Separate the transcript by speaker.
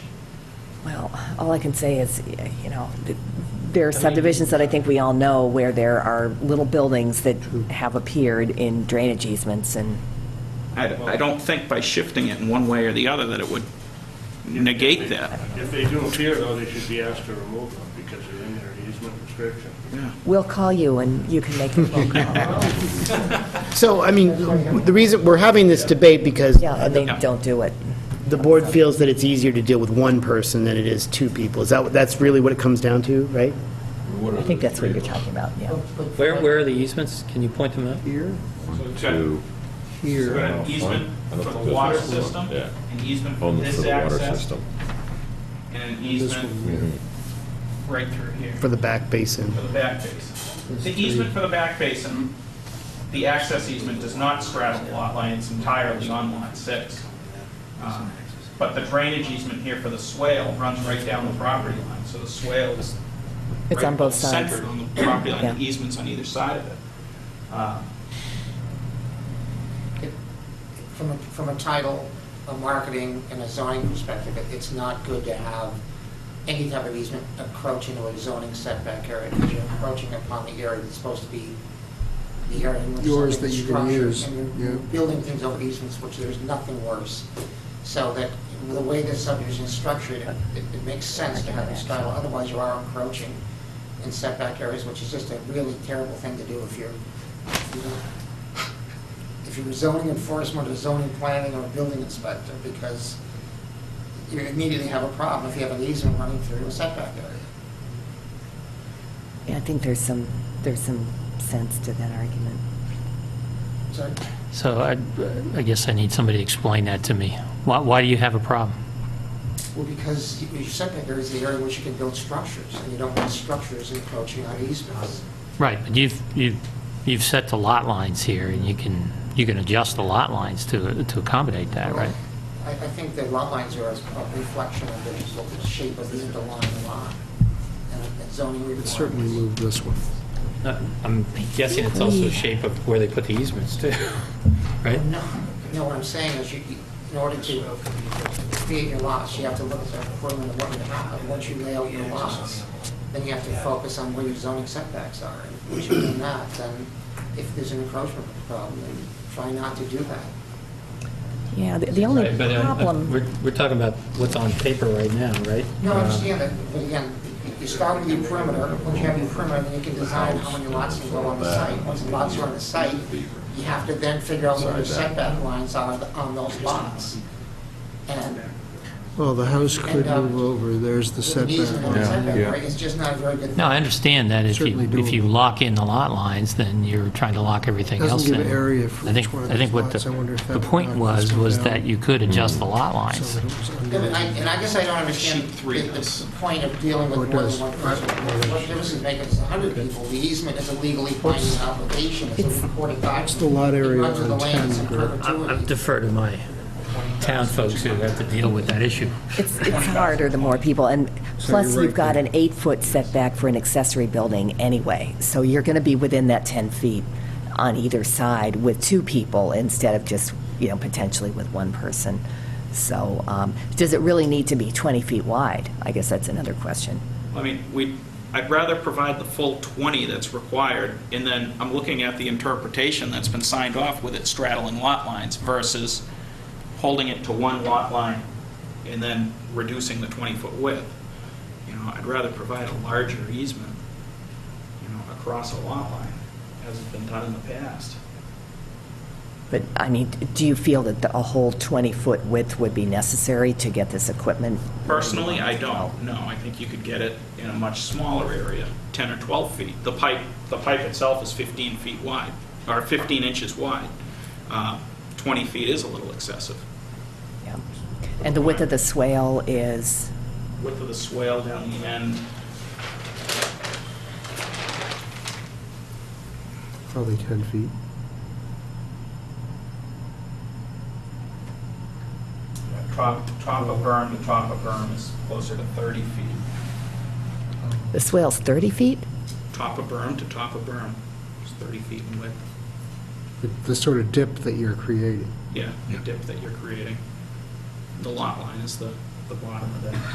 Speaker 1: all I can say is, you know, th- there are subdivisions that I think we all know where there are little buildings that have appeared in drainage easements and,
Speaker 2: I, I don't think by shifting it in one way or the other that it would negate that.
Speaker 3: If they do appear, though, they should be asked to remove them because they're in their easement restriction.
Speaker 1: we'll call you and you can make a phone call.
Speaker 4: So, I mean, the reason, we're having this debate because
Speaker 1: Yeah, and they don't do it.
Speaker 4: the board feels that it's easier to deal with one person than it is two people. Is that, that's really what it comes down to, right?
Speaker 1: I think that's what you're talking about, yeah.
Speaker 5: Where, where are the easements? Can you point them out?
Speaker 2: Two. Here. An easement
Speaker 6: Front
Speaker 2: for
Speaker 6: of
Speaker 2: the water
Speaker 6: business.
Speaker 2: system,
Speaker 6: uh, Yeah.
Speaker 2: an easement for
Speaker 6: on the
Speaker 2: this
Speaker 6: for the water
Speaker 2: access,
Speaker 6: system.
Speaker 2: and an easement right through here
Speaker 4: For the back basin.
Speaker 2: for the back basin. The easement for the back basin, the access easement does not straddle lot lines entirely on lot six. Um, But the drainage easement here for the swale runs right down the property line, so the swale is
Speaker 1: It's on
Speaker 2: right
Speaker 1: both sides.
Speaker 2: Centered on the property line,
Speaker 1: Yeah.
Speaker 2: the easements on either side of it. Uh,
Speaker 7: From a, from a title, a marketing, and a zoning perspective, it- it's not good to have any type of easement encroaching into a zoning setback area, because you're encroaching upon the area that's supposed to be the area in which
Speaker 8: Yours
Speaker 7: something
Speaker 8: that
Speaker 7: is
Speaker 8: you can
Speaker 7: structured,
Speaker 8: use,
Speaker 7: And
Speaker 8: yeah.
Speaker 7: you're building things over easements, which there's nothing worse. So that, the way this subdivision is structured, it, it makes sense to have this title, otherwise you are encroaching in setback areas, which is just a really terrible thing to do if you're, you know, if you're zoning enforcement or zoning planning or building inspector, because you immediately have a problem if you have an easement running through a setback area.
Speaker 1: Yeah, I think there's some, there's some sense to that argument.
Speaker 7: So
Speaker 5: So I, I guess I need somebody to explain that to me. Why, why do you have a problem?
Speaker 7: Well, because your setback area is the area in which you can build structures, and you don't want structures encroaching on easements.
Speaker 5: Right, but you've, you've, you've set the lot lines here, and you can, you can adjust the lot lines to, to accommodate that, right?
Speaker 7: I, I think the lot lines are a a reflection of the sort of shape of the underlying lot, and and zoning
Speaker 8: It
Speaker 7: requirements.
Speaker 8: certainly moved this one.
Speaker 5: Uh, I'm guessing it's also the shape of where they put the easements, too, right?
Speaker 7: No, no, what I'm saying is you, in order to create your lots, you have to look at the equivalent of what you have. And Once you lay out your lots, then you have to focus on where your zoning setbacks are. And Once you've done that, then if there's an encroachment problem, then try not to do that.
Speaker 1: Yeah, the- the only
Speaker 5: Right, but, uh,
Speaker 1: problem.
Speaker 5: We're, we're talking about what's on paper right now, right?
Speaker 7: No, I
Speaker 5: Uh,
Speaker 7: understand that, but again, you start with your perimeter, once you have your perimeter, then you can design how many lots can go on the site. Once the lots are on the site, you have to then figure out where your setback lines are on those lots. And
Speaker 8: Well, the house
Speaker 7: And,
Speaker 8: could
Speaker 7: uh,
Speaker 8: move over, there's the
Speaker 7: With an easement on
Speaker 8: setback.
Speaker 7: the setback, right, it's just not a very good.
Speaker 5: No, I understand that if you,
Speaker 8: Certainly
Speaker 5: if you
Speaker 8: doable.
Speaker 5: lock in the lot lines, then you're trying to lock everything
Speaker 8: Doesn't
Speaker 5: else in.
Speaker 8: give area for
Speaker 5: I think-
Speaker 8: each one of
Speaker 5: I think
Speaker 8: those
Speaker 5: what the-
Speaker 8: lots. I wonder if that
Speaker 5: The
Speaker 8: would
Speaker 5: point
Speaker 8: knock
Speaker 5: was,
Speaker 8: this one
Speaker 5: was
Speaker 8: down. Mm-hmm.
Speaker 5: that you could adjust the lot
Speaker 8: So
Speaker 5: lines.
Speaker 8: that it was under-
Speaker 7: And I, and I guess I don't understand
Speaker 2: Sheet
Speaker 7: the,
Speaker 2: three
Speaker 7: the
Speaker 2: does.
Speaker 7: point of dealing with
Speaker 8: Oh,
Speaker 7: more
Speaker 8: it
Speaker 7: than
Speaker 8: does.
Speaker 7: one person.
Speaker 8: Right.
Speaker 7: What difference does it make if it's a hundred people? The easement is a legally binding obligation, it's a recorded document.
Speaker 8: the lot area
Speaker 7: It runs with the
Speaker 8: on
Speaker 7: land, it's in
Speaker 8: 10, Greg?
Speaker 5: I
Speaker 7: perpetuity.
Speaker 5: defer to my town folks who have to deal with that issue.
Speaker 1: It's, it's harder the more people, and plus
Speaker 8: you're
Speaker 1: you've
Speaker 8: right
Speaker 1: got
Speaker 8: there.
Speaker 1: an eight-foot setback for an accessory building anyway, so you're going to be within that 10 feet on either side with two people instead of just, you know, potentially with one person. So, um, does it really need to be 20 feet wide? I guess that's another question.
Speaker 2: I mean, we, I'd rather provide the full 20 that's required, and then I'm looking at the interpretation that's been signed off with it straddling lot lines versus holding it to one lot line and then reducing the 20-foot width. You know, I'd rather provide a larger easement, you know, across a lot line, as has been done in the past.
Speaker 1: But, I mean, do you feel that the- a whole 20-foot width would be necessary to get this equipment?
Speaker 2: Personally, I don't, no, I think you could get it in a much smaller area, 10 or 12 feet. The pipe, the pipe itself is 15 feet wide, or 15 inches wide. Uh, 20 feet is a little excessive.
Speaker 1: Yeah. And the width of the swale is?
Speaker 2: Width of the swale down the end,
Speaker 8: Probably 10 feet.
Speaker 2: top, top of berm to top of berm is closer to 30 feet.
Speaker 1: The swale's 30 feet?
Speaker 2: Top of berm to top of berm is 30 feet in width.
Speaker 8: The- The sort of dip that you're creating.
Speaker 2: Yeah, the dip that you're creating. The lot line is the, the bottom of that.